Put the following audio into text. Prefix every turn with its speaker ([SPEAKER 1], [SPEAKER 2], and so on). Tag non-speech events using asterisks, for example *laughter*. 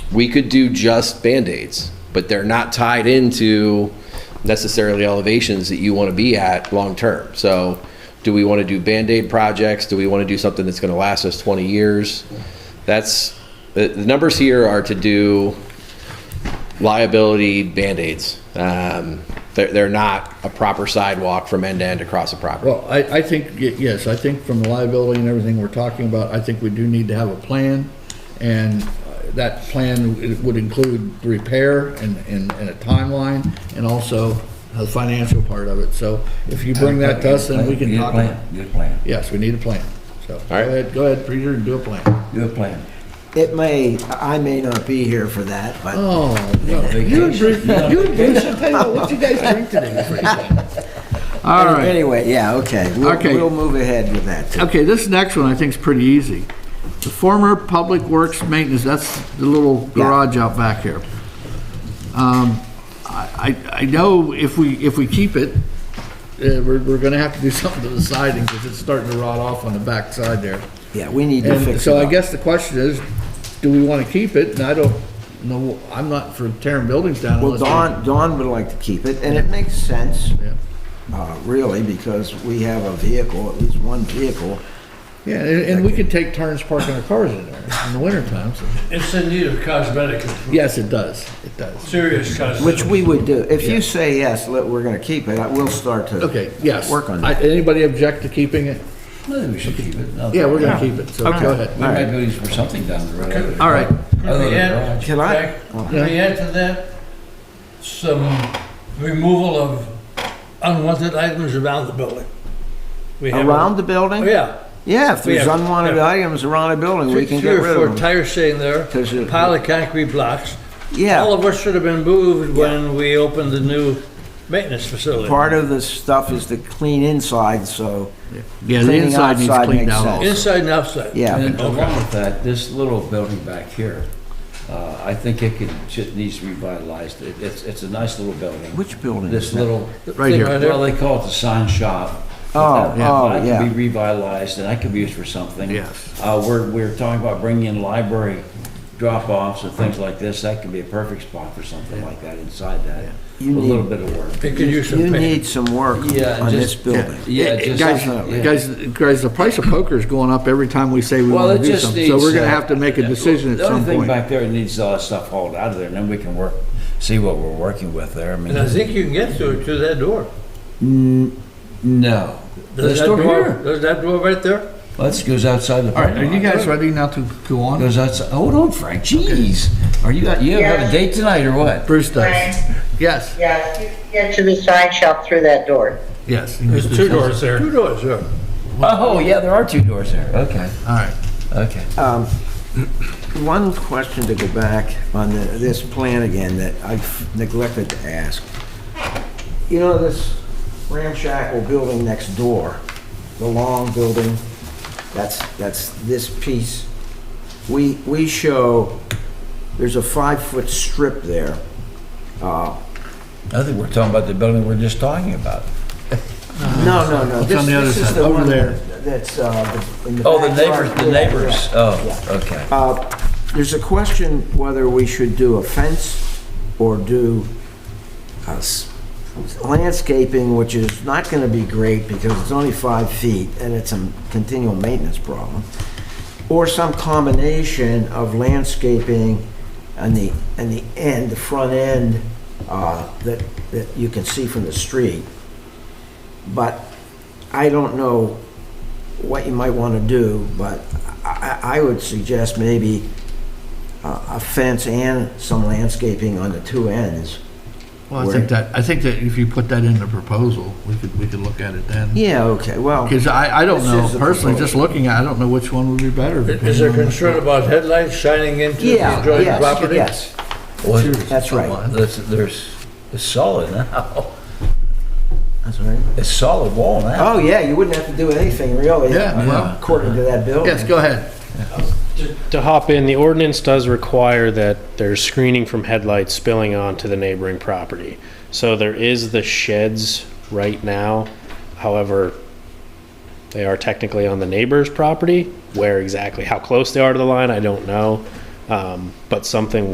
[SPEAKER 1] we could do just Band-Aids, but they're not tied into necessarily elevations that you want to be at long-term. So do we want to do Band-Aid projects? Do we want to do something that's going to last us 20 years? That's, the, the numbers here are to do liability Band-Aids. Um, They're, they're not a proper sidewalk from end to end across a property.
[SPEAKER 2] Well, I, I think, y- yes, I think from the liability and everything we're talking about, I think we do need to have a plan. And uh, that plan w- would include repair and, and, and a timeline and also the financial part of it. So if you bring that to us, then we can
[SPEAKER 3] Get a
[SPEAKER 2] talk. about
[SPEAKER 3] plan,
[SPEAKER 2] it.
[SPEAKER 3] Get a plan,
[SPEAKER 2] Yes, we need a plan. So go
[SPEAKER 1] right.
[SPEAKER 2] ahead, go ahead, Peter, and do a plan.
[SPEAKER 3] do a plan.
[SPEAKER 4] It may, I may not be here for that, but
[SPEAKER 2] Oh, no, you and Bruce, you and Bruce, I tell you what, what you guys drink today? *laughs* All
[SPEAKER 4] Any-
[SPEAKER 2] right.
[SPEAKER 4] anyway, yeah, okay. We'll,
[SPEAKER 2] Okay.
[SPEAKER 4] we'll move ahead with that. too.
[SPEAKER 2] Okay, this next one I think is pretty easy. The former Public Works Maintenance, that's the little garage out back here. Um, I, I I know if we, if we keep it, uh, we're, we're gonna have to do *laughs* something to the siding because it's starting to rot off on the back side there.
[SPEAKER 4] Yeah, we need to
[SPEAKER 2] And
[SPEAKER 4] fix
[SPEAKER 2] so I
[SPEAKER 4] it up.
[SPEAKER 2] guess the question is, do we want to keep it? And I don't know, I'm not for tearing buildings down
[SPEAKER 4] Well,
[SPEAKER 2] unless. we-
[SPEAKER 4] Don, Don would like to keep it, and it makes sense,
[SPEAKER 2] Yeah.
[SPEAKER 4] uh, really, because we have a vehicle, at least one vehicle.
[SPEAKER 2] Yeah, and, and we could take turns parking our cars in there in the winter times.
[SPEAKER 5] It's in need of cosmetic, improvement,
[SPEAKER 2] Yes, it does, it does.
[SPEAKER 5] serious cosmetic.
[SPEAKER 4] Which we would do. If you say yes, let- we're gonna keep it, I- we'll start to.
[SPEAKER 2] Okay, yes.
[SPEAKER 4] Work on
[SPEAKER 2] I-
[SPEAKER 4] that.
[SPEAKER 2] Anybody object to keeping it?
[SPEAKER 3] Maybe we should keep it. No.
[SPEAKER 2] Yeah, we're gonna keep it, so go
[SPEAKER 3] We
[SPEAKER 2] ahead.
[SPEAKER 3] might do these for something down the road.
[SPEAKER 2] All right,
[SPEAKER 5] Could
[SPEAKER 3] Other
[SPEAKER 5] we
[SPEAKER 3] than
[SPEAKER 5] add,
[SPEAKER 3] garage.
[SPEAKER 4] Can I- Oh.
[SPEAKER 5] Jack, could we add to that some removal of unwanted items around the building? We have a-
[SPEAKER 4] Around the
[SPEAKER 5] Oh,
[SPEAKER 4] building?
[SPEAKER 5] Yeah.
[SPEAKER 4] Yeah, if there's
[SPEAKER 5] Yeah,
[SPEAKER 4] unwanted
[SPEAKER 5] yeah.
[SPEAKER 4] items around a building, we
[SPEAKER 5] Three
[SPEAKER 4] can
[SPEAKER 5] three
[SPEAKER 4] get
[SPEAKER 5] or
[SPEAKER 4] rid
[SPEAKER 5] four
[SPEAKER 4] of them.
[SPEAKER 5] tires sitting there,
[SPEAKER 4] 'Cause it-
[SPEAKER 5] pile of concrete blocks. All
[SPEAKER 4] Yeah,
[SPEAKER 5] of which should have been moved when we opened the new maintenance facility.
[SPEAKER 4] part of the stuff is to clean inside, so.
[SPEAKER 2] yeah, the
[SPEAKER 4] Cleaning
[SPEAKER 2] inside needs
[SPEAKER 4] outside
[SPEAKER 2] cleaned
[SPEAKER 4] makes
[SPEAKER 2] out
[SPEAKER 4] sense.
[SPEAKER 2] also.
[SPEAKER 5] Inside and outside.
[SPEAKER 4] Yeah.
[SPEAKER 3] And
[SPEAKER 5] Okay.
[SPEAKER 3] along with that, this little building back here, uh, I think it could, should, needs to be revitalized. It- It's, it's a nice little building.
[SPEAKER 4] Which building is
[SPEAKER 3] This
[SPEAKER 4] that?
[SPEAKER 3] little.
[SPEAKER 2] Right here.
[SPEAKER 3] Well, they call it the sign shop.
[SPEAKER 4] Oh,
[SPEAKER 3] That-
[SPEAKER 4] yeah.
[SPEAKER 3] that
[SPEAKER 4] oh, yeah.
[SPEAKER 3] could be revitalized and that could be used for something.
[SPEAKER 2] Yes.
[SPEAKER 3] Uh, we're, we're talking about bringing in library drop-offs and things like this. That could be a perfect spot for something like that inside that. A
[SPEAKER 4] You
[SPEAKER 3] little
[SPEAKER 4] need-
[SPEAKER 3] bit of work.
[SPEAKER 5] They could use
[SPEAKER 4] You
[SPEAKER 5] some paint.
[SPEAKER 4] need some work
[SPEAKER 3] Yeah,
[SPEAKER 4] on this
[SPEAKER 3] just-
[SPEAKER 4] building.
[SPEAKER 3] Yeah,
[SPEAKER 2] Hey,
[SPEAKER 3] just.
[SPEAKER 2] Guys,
[SPEAKER 3] yeah.
[SPEAKER 2] guys, guys, the price of poker is going up every time we say we
[SPEAKER 3] Well,
[SPEAKER 2] wanna
[SPEAKER 3] it
[SPEAKER 2] do
[SPEAKER 3] just
[SPEAKER 2] something,
[SPEAKER 3] needs.
[SPEAKER 2] so we're gonna
[SPEAKER 3] uh,
[SPEAKER 2] have to make a
[SPEAKER 3] yeah,
[SPEAKER 2] decision at
[SPEAKER 3] the other
[SPEAKER 2] some
[SPEAKER 3] thing
[SPEAKER 2] point.
[SPEAKER 3] back there, it needs all that stuff hauled out of there, and then we can work, see what we're working with there. I mean,
[SPEAKER 5] And I think you can get through to that door.
[SPEAKER 3] no. This
[SPEAKER 5] There's that
[SPEAKER 3] door
[SPEAKER 5] door,
[SPEAKER 3] here.
[SPEAKER 5] there's that door right there?
[SPEAKER 3] Well, This goes outside the.
[SPEAKER 2] All right, are
[SPEAKER 3] parking
[SPEAKER 2] you
[SPEAKER 3] lot.
[SPEAKER 2] guys ready now to go on?
[SPEAKER 3] Goes outside, hold on Frank, jeez. Are you, you have a date tonight or what?
[SPEAKER 2] Bruce does.
[SPEAKER 6] Right,
[SPEAKER 2] Yes,
[SPEAKER 6] yeah, you can get to the sign shop through that door.
[SPEAKER 2] yes.
[SPEAKER 5] There's two doors there. Two doors, yeah.
[SPEAKER 3] Oh, yeah, there are two doors there. Okay,
[SPEAKER 2] All right.
[SPEAKER 3] okay.
[SPEAKER 4] Um, One question to go back on the- this plan again that I've neglected to ask. You know this ramshackle building next door, the long building, that's, that's this piece. We, we show, there's a five-foot strip there. Uh,
[SPEAKER 3] I think we're talking about the building we're just talking about.
[SPEAKER 4] No, no, no.
[SPEAKER 2] It's on the other
[SPEAKER 4] This this is
[SPEAKER 2] side,
[SPEAKER 4] the
[SPEAKER 2] over
[SPEAKER 4] one
[SPEAKER 2] there.
[SPEAKER 4] That's uh, the- in the
[SPEAKER 3] Oh, the
[SPEAKER 4] backyard.
[SPEAKER 3] neighbors, the
[SPEAKER 4] Yeah,
[SPEAKER 3] neighbors,
[SPEAKER 4] yeah.
[SPEAKER 3] oh, okay.
[SPEAKER 4] Uh, There's a question whether we should do a fence or do uh, s- landscaping, which is not going to be great because it's only five feet and it's a continual maintenance problem, or some combination of landscaping on the, on the end, the front end, uh, that, that you can see from the street. But I don't know what you might want to do, but I, I I would suggest maybe uh, a fence and some landscaping on the two ends.
[SPEAKER 2] Well, I think that, I think that if you put that in the proposal, we could, we could look at it then.
[SPEAKER 4] Yeah, okay, well,
[SPEAKER 2] Because I, I don't
[SPEAKER 4] This
[SPEAKER 2] know,
[SPEAKER 4] is the
[SPEAKER 2] personally, just
[SPEAKER 4] proposal.
[SPEAKER 2] looking at, it, I don't know which one would be better.
[SPEAKER 5] Is there
[SPEAKER 2] depending on-
[SPEAKER 5] concern about headlights shining into the
[SPEAKER 4] yeah,
[SPEAKER 5] adjoining
[SPEAKER 4] yes,
[SPEAKER 5] property?
[SPEAKER 4] yes.
[SPEAKER 3] Well,
[SPEAKER 4] That's right.
[SPEAKER 2] Someone.
[SPEAKER 3] There's, there's, it's solid now.
[SPEAKER 4] That's right.
[SPEAKER 3] It's solid wall now.
[SPEAKER 4] Oh, yeah, you wouldn't have to do anything, really.
[SPEAKER 2] Yeah, well-
[SPEAKER 4] According to that bill.
[SPEAKER 2] Yes, go ahead.
[SPEAKER 7] To hop in, the ordinance does require that there's screening from headlights spilling onto the neighboring property. So there is the sheds right now. However, they are technically on the neighbor's property. Where exactly, how close they are to the line, I don't know. Um, But something